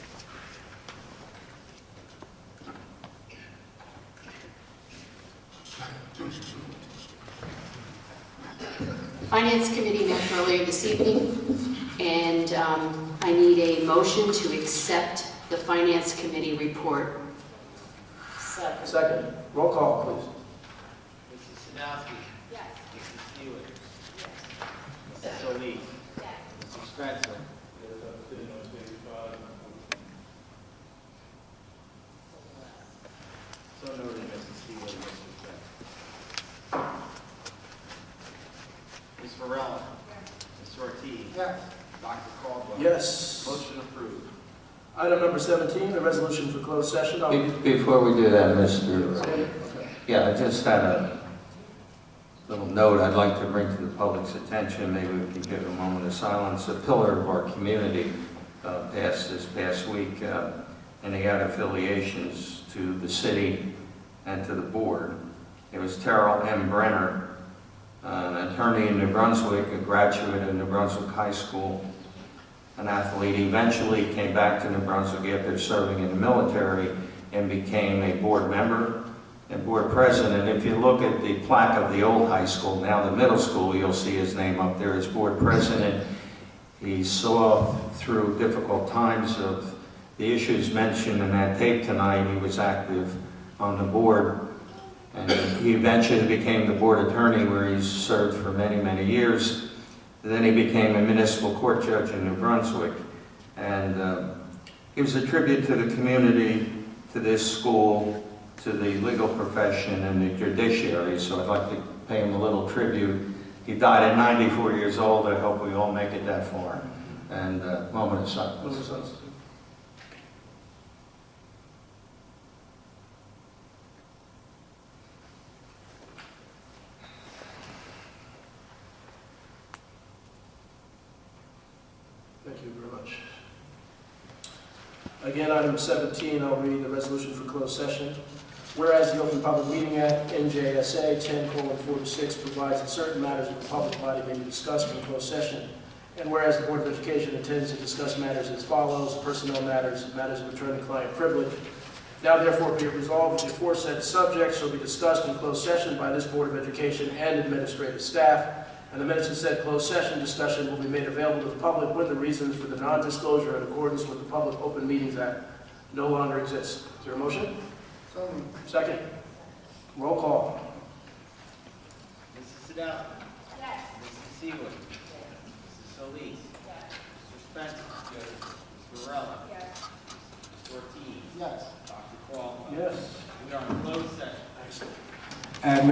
Finance Committee met earlier this evening, and um, I need a motion to accept the Finance Committee report. Second. Second, roll call, please. Mrs. Sadowski. Yes. Mrs. Stewart. Mrs. Solis. Mrs. Spencer. So noted, Mrs. Stewart, and Mrs. Spencer. Ms. Varela. Ms. Ortiz. Yes. Dr. Caldwell. Yes. Motion approved. Item number 17, the resolution for closed session. I'll- Be- Before we do that, Mr., Okay. yeah, I just had a little note I'd like to bring to the public's attention. Maybe we can give a moment of silence. A pillar of our community uh, passed this past week, uh, and they had affiliations to the city and to the board. It was Terrell M. Brenner, an attorney in New Brunswick, a graduate of New Brunswick High School, an athlete, eventually came back to New Brunswick after serving in the military and became a board member and board president. If you look at the plaque of the old high school, now the middle school, you'll see his name up there as board president. He saw through difficult times of the issues mentioned in that tape tonight, he was active on the board. And he eventually became the board attorney where he served for many, many years. Then he became a municipal court judge in New Brunswick. And uh, it was a tribute to the community, to this school, to the legal profession and the judiciary, so I'd like to pay him a little tribute. He died at 94 years old, I hope we all make it that far. And uh, moment of Move silence. this on. Thank you very much. Again, item 17, I'll read the resolution for closed session. Whereas the Open Public Meeting Act, NJSA 10:46 provides that certain matters of the public body may be discussed in closed session, and whereas the Board of Education intends to discuss matters as follows, personnel matters, matters of attorney-client privilege, now therefore be it resolved that the aforesaid subjects shall be discussed in closed session by this Board of Education and administrative staff, and the minutes of said closed session discussion will be made available to the public with the reasons for the non-disclosure in accordance with the Public Open Meetings Act no longer exists. Is there a motion? Second. Roll call. Mrs. Sadowski. Mrs. Stewart. Mrs. Solis. Mr. Spencer. Ms. Varela. Ms. Ortiz. Yes. Dr. Caldwell. Yes. We are in closed session. Excellent.